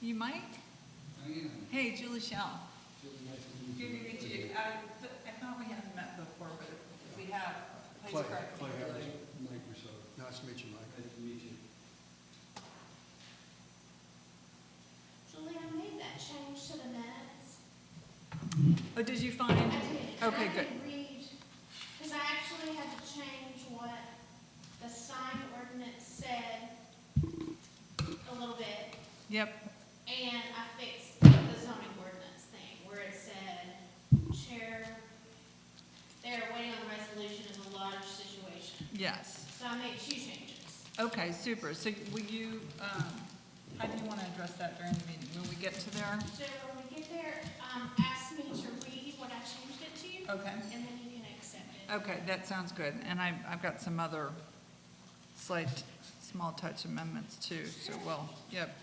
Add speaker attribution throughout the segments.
Speaker 1: You Mike?
Speaker 2: I am.
Speaker 1: Hey, Julie Shell.
Speaker 2: Julie, nice to meet you.
Speaker 1: Good to meet you. I, th- I thought we hadn't met before, but if we have. Please
Speaker 3: Clay,
Speaker 1: correct me.
Speaker 3: Clay Harris.
Speaker 2: Mike Rousseau.
Speaker 3: Nice to meet you, Mike.
Speaker 2: Nice to meet you.
Speaker 4: Julie, I made that change to the minutes.
Speaker 1: Oh, did you find?
Speaker 4: I did.
Speaker 1: Okay,
Speaker 4: I
Speaker 1: good.
Speaker 4: did read, because I actually had to change what the sign ordinance said a little bit.
Speaker 1: Yep.
Speaker 4: And I fixed the zoning ordinance thing where it said, Chair, they're waiting on the resolution of the lodge situation.
Speaker 1: Yes.
Speaker 4: So I made two changes.
Speaker 1: Okay, super. So will you, um, how do you want to address that during the meeting? When we get to there?
Speaker 4: So when we get there, um, ask me to read what I changed it to,
Speaker 1: Okay.
Speaker 4: and then you can accept it.
Speaker 1: Okay, that sounds good. And I, I've got some other slight, small touch amendments too, so we'll, yep.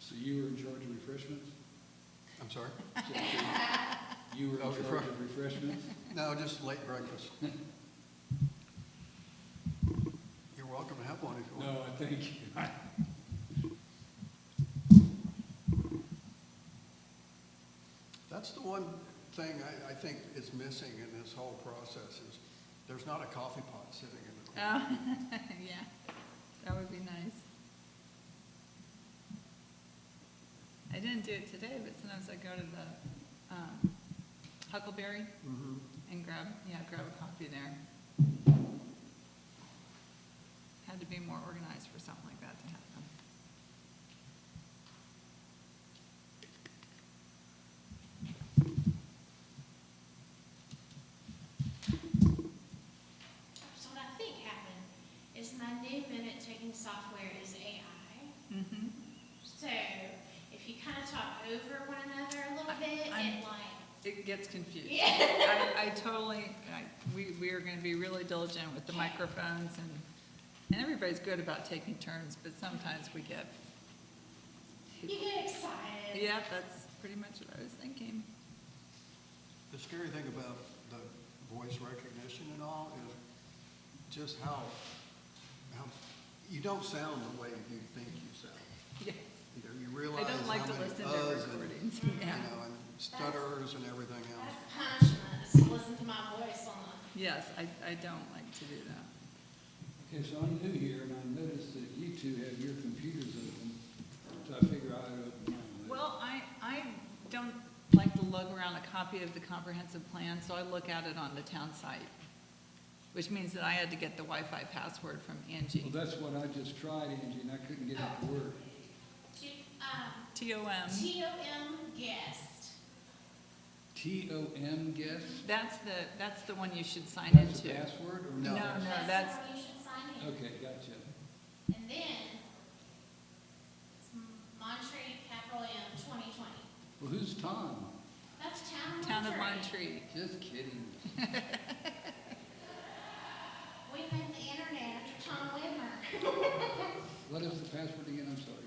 Speaker 2: So you were in charge of refreshments?
Speaker 3: I'm sorry?
Speaker 2: You were in
Speaker 3: Oh,
Speaker 2: charge
Speaker 3: refresh-
Speaker 2: of refreshments?
Speaker 3: No, just late breakfast. You're welcome to have one if you want.
Speaker 2: No, I thank you.
Speaker 3: That's the one thing I, I think is missing in this whole process is there's not a coffee pot sitting in the corner.
Speaker 1: Oh, yeah, that would be nice. I didn't do it today, but sometimes I go to the um, Huckleberry
Speaker 3: Mhm.
Speaker 1: and grab, yeah, grab a coffee there. Had to be more organized for something like that to happen.
Speaker 4: So what I think happened is my new minute taking software is AI.
Speaker 1: Mm-hmm.
Speaker 4: So if you kind of talk over one another a little bit,
Speaker 1: I'm-
Speaker 4: it like,
Speaker 1: It gets confused.
Speaker 4: yeah.
Speaker 1: I, I totally, I, we, we are gonna be really diligent with the microphones and, and everybody's good about taking turns, but sometimes we get,
Speaker 4: You get excited.
Speaker 1: yeah, that's pretty much what I was thinking.
Speaker 3: The scary thing about the voice recognition and all is just how, how, you don't sound the way you think you sound.
Speaker 1: Yeah,
Speaker 3: You know, You realize
Speaker 1: I
Speaker 3: how
Speaker 1: don't like to
Speaker 3: many
Speaker 1: listen to
Speaker 3: uhs and,
Speaker 1: recordings,
Speaker 3: you
Speaker 1: yeah.
Speaker 3: know, and stutterers and everything else.
Speaker 4: That's punishment, is to listen to my voice on the
Speaker 1: Yes, I, I don't like to do that.
Speaker 2: Okay, so I'm new here, and I noticed that you two have your computers open, so I figure I'd open mine. later.
Speaker 1: Well, I, I don't like to lug around a copy of the comprehensive plan, so I look at it on the town site, which means that I had to get the Wi-Fi password from
Speaker 2: Well,
Speaker 1: Angie.
Speaker 2: that's what I just tried, Angie, and I couldn't get it to work.
Speaker 4: G- um,
Speaker 1: T-O-M,
Speaker 4: TOM guest.
Speaker 2: T-O-M guess?
Speaker 1: that's the, that's the one you should sign
Speaker 2: That's the
Speaker 1: into.
Speaker 2: password, or
Speaker 3: No.
Speaker 2: no?
Speaker 1: No, no, that's,
Speaker 4: how you should sign in.
Speaker 2: Okay, gotcha.
Speaker 4: And then, it's Monterey, capital M, 2020.
Speaker 2: Well, who's Tom?
Speaker 4: That's town of Monterey.
Speaker 1: Town of Monterey.
Speaker 2: Just kidding.
Speaker 4: We named the internet after Tom Whitmer.
Speaker 2: What is the password again? I'm sorry.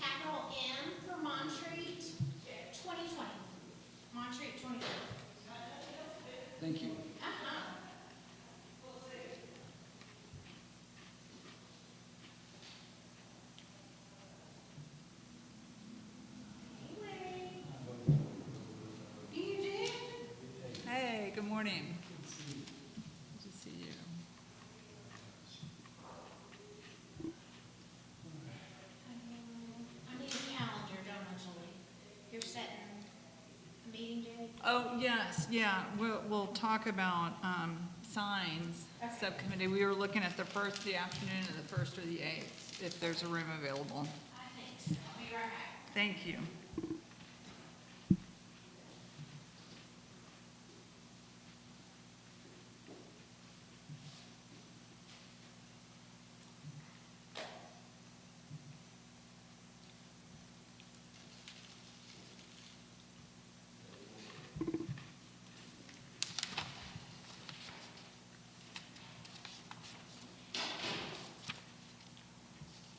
Speaker 4: Capital M for Montreat, 2020. Montreat 2020.
Speaker 2: Thank you.
Speaker 4: Uh-huh. Anyway. You did?
Speaker 1: Hey, good morning. Good to see you.
Speaker 4: I need a calendar, don't I, Julie? You're setting a meeting date?
Speaker 1: Oh, yes, yeah, we'll, we'll talk about, um, signs, subcommittee. We were looking at the first, the afternoon of the first or the eighth, if there's a room available.
Speaker 4: I think so. Be right back.
Speaker 1: Thank you.